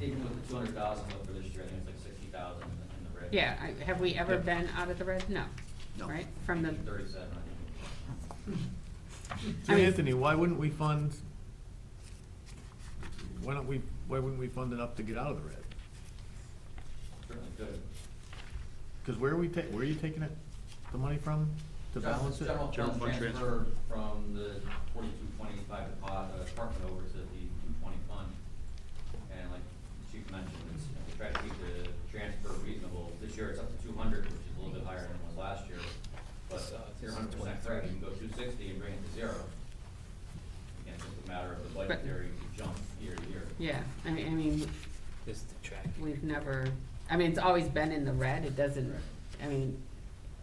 even with the two hundred thousand left for this year, I think it's like sixty thousand in the red. Yeah, I- have we ever been out of the red? No. No. Right, from the, Thirty-seven, I I So mean- Anthony, why wouldn't we fund, why don't we, why wouldn't we fund enough to get out of the red? think, certainly could. Because where are we ta, where are you taking it, the money from to General- balance it? General General fund fund transfer from the forty-two twenty-five uh, department over to the two twenty fund. And like the Chief mentioned, it's, you know, we try to keep the transfer reasonable. This year it's up to two hundred, which is a little bit higher than it was last year. But uh, if you're hundred percent correct, you can go two sixty and bring it to zero. Again, it's just a matter of the budgetary jump year to year. yeah, I mean, I mean, This is the track. we've never, I mean, it's always been in the red, it doesn't, I mean,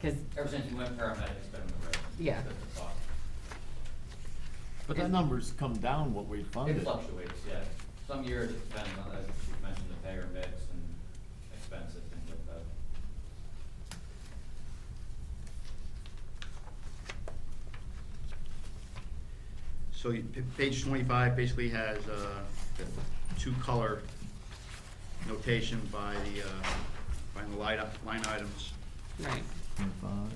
cause, Ever since you went paramedic, it's been in the red. Yeah. That's the thought. But that number's come down what we It funded. fluctuates, yeah. Some years it depends on, as you mentioned, the payer mix and expenses, things like that. So you- p- page twenty-five basically has uh, the two-color notation by the, uh, by the line up- line items. right, Twenty-five.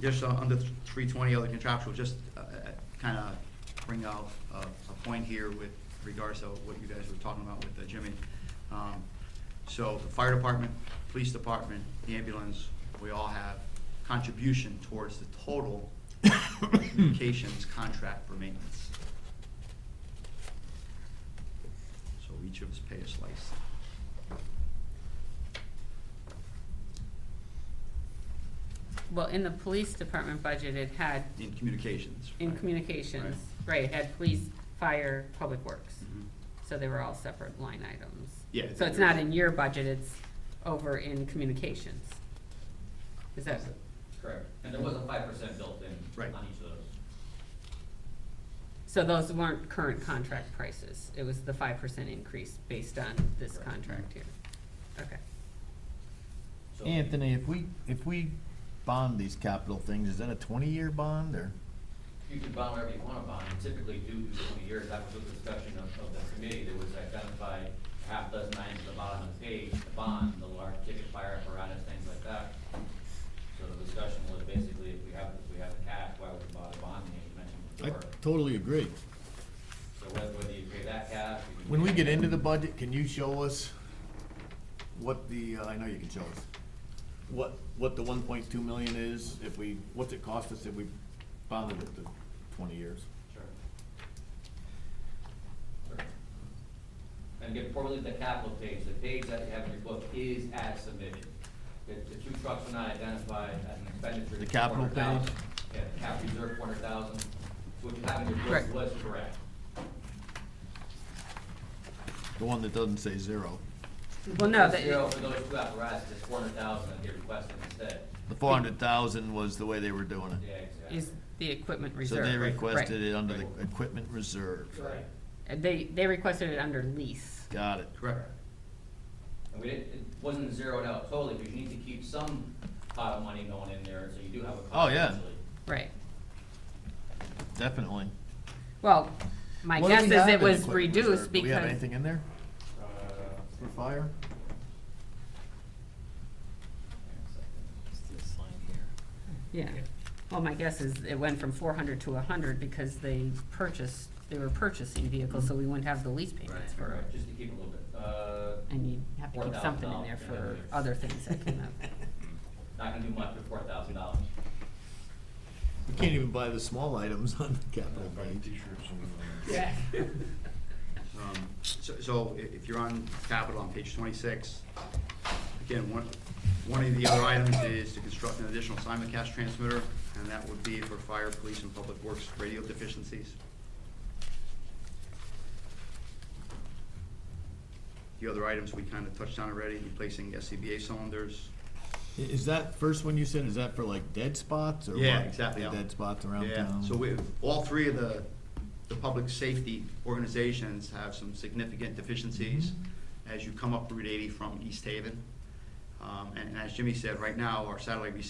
Just uh, under three twenty, other contractual, just uh, kind of bring out uh, a point here with regards to what you guys were talking about with uh, Jimmy. Um, So the fire department, police department, the ambulance, we all have contribution towards the total communications contract for maintenance. So each of us pay a slice. well, in the police department budget, it had, In communications. in right? communications, right, Mm-hmm. it had police, fire, public works. Mhm. So they were all separate line items. Yeah, it's So in it's not yours. in your budget, it's over in communications. Is that, Correct. And there was a five percent built in Right. on each of those. so those weren't current contract prices, it was the five percent increase based on this Correct. contract here? Okay. So- Anthony, if we, if we bond these capital things, is that a twenty-year bond or? You can bond whatever you want to bond, You typically do do twenty years, that was the discussion of, of the committee, there was identified a half dozen items at the bottom of the page, the bond, the large ticket fire apparatus, things like that. So the discussion was basically, if we have, if we have the cash, why would we bother bonding, as you mentioned I before. totally agree. So whether, whether you pay that cash. you can When we pay- get into the budget, can you show us what the, uh, I know you can show us, what, what the one point two million is, if we, what's it cost us if we bonded it to twenty years? Sure. Sure. And again, before we leave the capital page, the page that you have in your book is as submitted. The, the two trucks were not identified as an expenditure. The capital page? $400,000. Yeah, the cap reserve, four hundred thousand, what you have in your Right. book was correct. The one that doesn't say zero. Well, no, The Zero that, for those two apparatuses, is four hundred thousand that they requested instead. The four hundred thousand was the way they were doing Yeah, it. exactly. is the equipment So reserve. they right, requested right. it under the equipment reserve. Right. And They, they requested it under lease. Got it. Correct. And we didn't, it wasn't zeroed out totally, because you need to keep some pot of money going in there, so you do have a. Oh, cost yeah. eventually. Right. Definitely. Well, my What do guess we is have it in was equipment reduced reserve? Do we have because, anything in there Uh, for fire? hang on a second. It's this line here. yeah. Well, my guess is it went from four hundred to a hundred because they purchased, they were purchasing vehicles, so we wouldn't have the lease Right, payments for. right, just to keep it a little bit, uh, And you have to keep something in there $4,000 for in there. other things that came up. not gonna do much for four thousand dollars. We can't even buy the small items on the capital page. Yeah. Um, So, so i- if you're on capital on page twenty-six, again, one, one of the other items is to construct an additional simulcast transmitter, and that would be for fire, police, and public works radio deficiencies. The other items we kind of touched on already, replacing SCBA cylinders. I- Is that first one you said, is that for like dead spots or what? Yeah, exactly. The Dead spots around Yeah, town? so we, all three of the, the public safety organizations have some significant deficiencies Mm-hmm. as you come up Route eighty from East Haven. Um, and, and as Jimmy said, right now, our satellite receiver